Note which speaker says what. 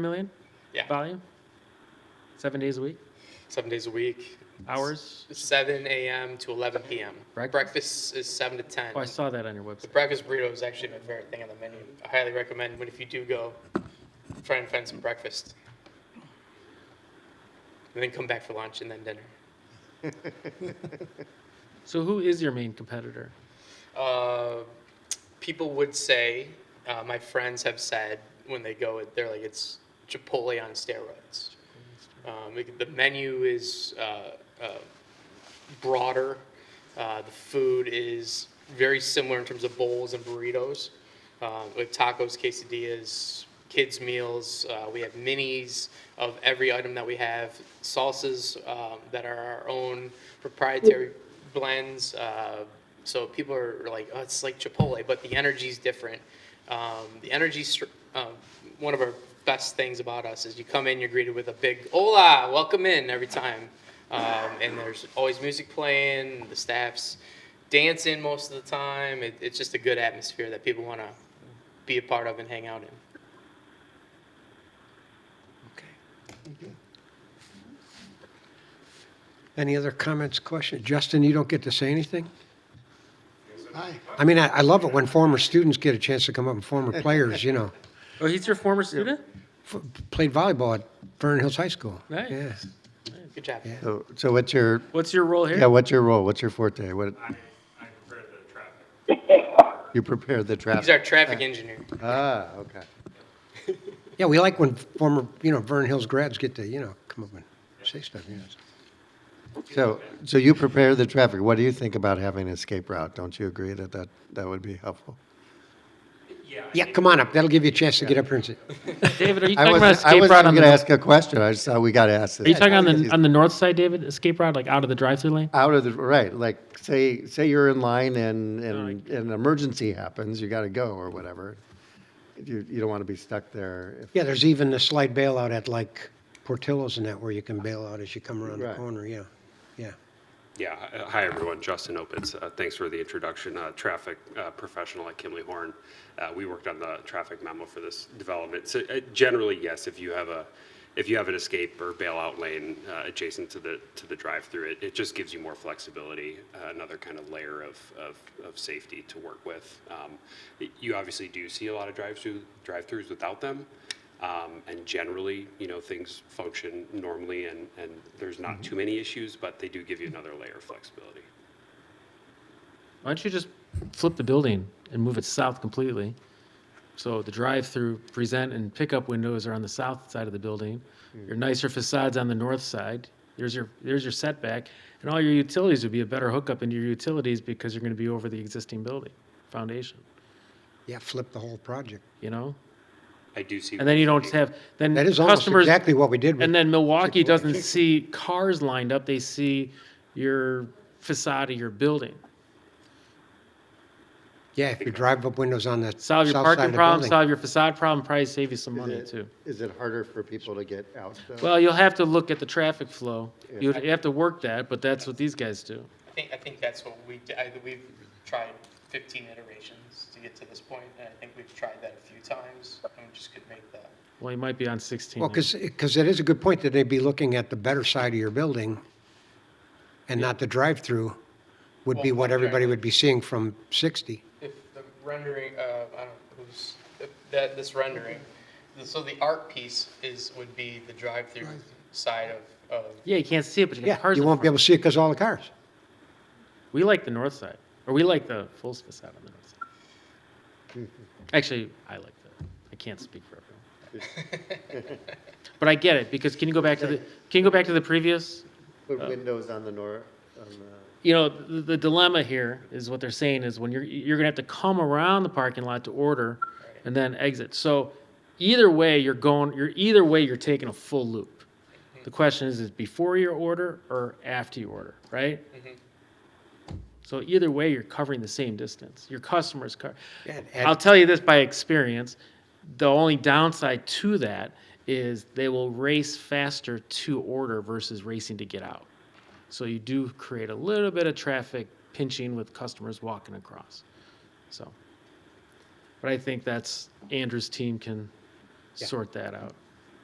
Speaker 1: million?
Speaker 2: Yeah.
Speaker 1: Volume? Seven days a week?
Speaker 2: seven days a week,
Speaker 1: Hours?
Speaker 2: 7 a.m. to 11 p.m.
Speaker 1: Breakfast?
Speaker 2: Breakfast, is 7 to 10.
Speaker 1: Oh, I saw that on your
Speaker 2: the
Speaker 1: website.
Speaker 2: breakfast burrito is actually my favorite thing on the menu. I highly recommend when if you do go, try and find some breakfast, and then come back for lunch and then dinner.
Speaker 1: So who is your main competitor?
Speaker 2: Uh, people would say, uh, my friends have said when they go, they're like it's Chipotle on steroids. Um, it- the menu is uh, uh, broader. Uh, the food is very similar in terms of bowls and burritos, uh, with tacos, quesadillas, kids' meals. Uh, we have minis of every item that we have, salsas um, that are our own proprietary blends. Uh, so people are like, oh, it's like Chipotle, but the energy's different. Um, the energy, str- uh, one of our best things about us is you come in, you're greeted with a big "Hola, welcome in" every time, um, and there's always music playing, the staffs dancing most of the time. It, it's just a good atmosphere that people want to be a part of and hang out in.
Speaker 3: Any other comments, questions? Justin, you don't get to say anything?
Speaker 4: Hi.
Speaker 3: I mean, I, I love it when former students get a chance to come up and former players, you know.
Speaker 1: Oh, he's your former student?
Speaker 3: F- Played volleyball at Vernon Hills High School.
Speaker 1: Nice.
Speaker 3: Yeah.
Speaker 2: Good job.
Speaker 3: Yeah.
Speaker 4: So, so what's your,
Speaker 1: What's your role
Speaker 4: yeah,
Speaker 1: here?
Speaker 4: what's your role? What's your forte? What,
Speaker 5: I prefer the traffic.
Speaker 4: you prepare the
Speaker 2: He's our
Speaker 4: traffic?
Speaker 2: traffic engineer.
Speaker 4: Ah, okay.
Speaker 3: Yeah, we like when former, you know, Vernon Hills grads get to, you know, come up and say stuff, you know.
Speaker 4: So, so you prepare the traffic. What do you think about having an escape route? Don't you agree that that, that would be helpful?
Speaker 5: Yeah. I
Speaker 3: Yeah,
Speaker 5: think-
Speaker 3: come on up. That'll give you a chance to get up here and say,
Speaker 1: David, are you
Speaker 4: I
Speaker 1: talking about
Speaker 4: wasn't, I
Speaker 1: escape
Speaker 4: wasn't
Speaker 1: route on
Speaker 4: going
Speaker 1: the,
Speaker 4: to
Speaker 1: are
Speaker 4: ask a question. I just thought we got to ask this.
Speaker 1: you talking on the, on the north side, David? Escape route, like out of the drive-through lane?
Speaker 4: Out of the, right, like, say, say you're in line and, and an emergency happens, you got to go or whatever. You, you don't want to be stuck there. if-
Speaker 3: yeah, there's even a slight bailout at like Portillo's and that where you can bail out as you come around the
Speaker 4: Right.
Speaker 3: corner, yeah. Yeah.
Speaker 5: Yeah, uh, hi, everyone. Justin Opitz. Uh, Thanks for the introduction. Uh, Traffic uh, professional at Kimley Horn. Uh, We worked on the traffic memo for this development. So uh, generally, yes, if you have a, if you have an escape or bailout lane uh, adjacent to the, to the drive-through, it, it just gives you more flexibility, uh, another kind of layer of, of, of safety to work with. Um, y- You obviously do see a lot of drive-through, drive-throughs without them. Um, And generally, you know, things function normally and, and there's
Speaker 1: Mm-hmm.
Speaker 5: not too many issues, but they do give you another layer of flexibility.
Speaker 1: Why don't you just flip the building and move it south completely? So the drive-through, present and pickup windows are on the south side of the building.
Speaker 3: Hmm.
Speaker 1: Your nicer facade's on the north side. There's your, there's your setback. And all your utilities would be a better hookup into your utilities because you're going to be over the existing building, foundation,
Speaker 3: Yeah, flip the whole project.
Speaker 1: you know?
Speaker 5: I do see.
Speaker 1: And then you don't have, then
Speaker 3: That is almost
Speaker 1: customers.
Speaker 3: exactly what we did with
Speaker 1: And then Milwaukee doesn't see cars lined up, they see your facade of your building.
Speaker 3: Yeah, if you drive up windows on the
Speaker 1: Solve your
Speaker 3: south side of
Speaker 1: parking
Speaker 3: the
Speaker 1: problem,
Speaker 3: building.
Speaker 1: solve your facade problem, probably save you some money
Speaker 4: Is it-
Speaker 1: too.
Speaker 4: Is it harder for people to get out though?
Speaker 1: Well, you'll have to look at the traffic flow. You have to work that, but that's what these guys do.
Speaker 2: I think I think that's what we d- I, we've tried 15 iterations to get to this point, and I think we've tried that a few times, and we just could make that.
Speaker 1: Well, you might be on 16.
Speaker 3: Well,
Speaker 1: now.
Speaker 3: because, it is a good point that they'd be looking at the better side of your building and not the drive-through would be
Speaker 2: Well,
Speaker 3: what
Speaker 2: okay.
Speaker 3: everybody would be seeing from 60.
Speaker 2: If the rendering, uh, I don't know who's, if that, this rendering, the- so the art piece is, would be the drive-through side of, of,
Speaker 1: Yeah, you can't see it, but you got
Speaker 3: Yeah,
Speaker 1: cars
Speaker 3: you
Speaker 1: in
Speaker 3: won't be
Speaker 1: front.
Speaker 3: able to see it because all the cars.
Speaker 1: We like the north side, or we like the full facade on the north side.
Speaker 3: Mm-hmm.
Speaker 1: Actually, I like the, I can't speak for everyone. But I get it, because can you go back to the, can you go back to the previous?
Speaker 4: Put windows on the north, on the,
Speaker 1: you know, the, the dilemma here is what they're saying is when you're, you're gonna have to come around the parking lot to order and then exit. So either way, you're going, you're, either way, you're taking a full loop.
Speaker 3: Mm-hmm.
Speaker 1: The question is, is before your order or after you order, right?
Speaker 3: Mm-hmm.
Speaker 1: So either way, you're covering the same distance. Your customers cover.
Speaker 3: Yeah, and-
Speaker 1: I'll tell you this by experience, the only downside to that is they will race faster to order versus racing to get out. So you do create a little bit of traffic pinching with customers walking across. So, but I think that's Andrew's team can sort that out.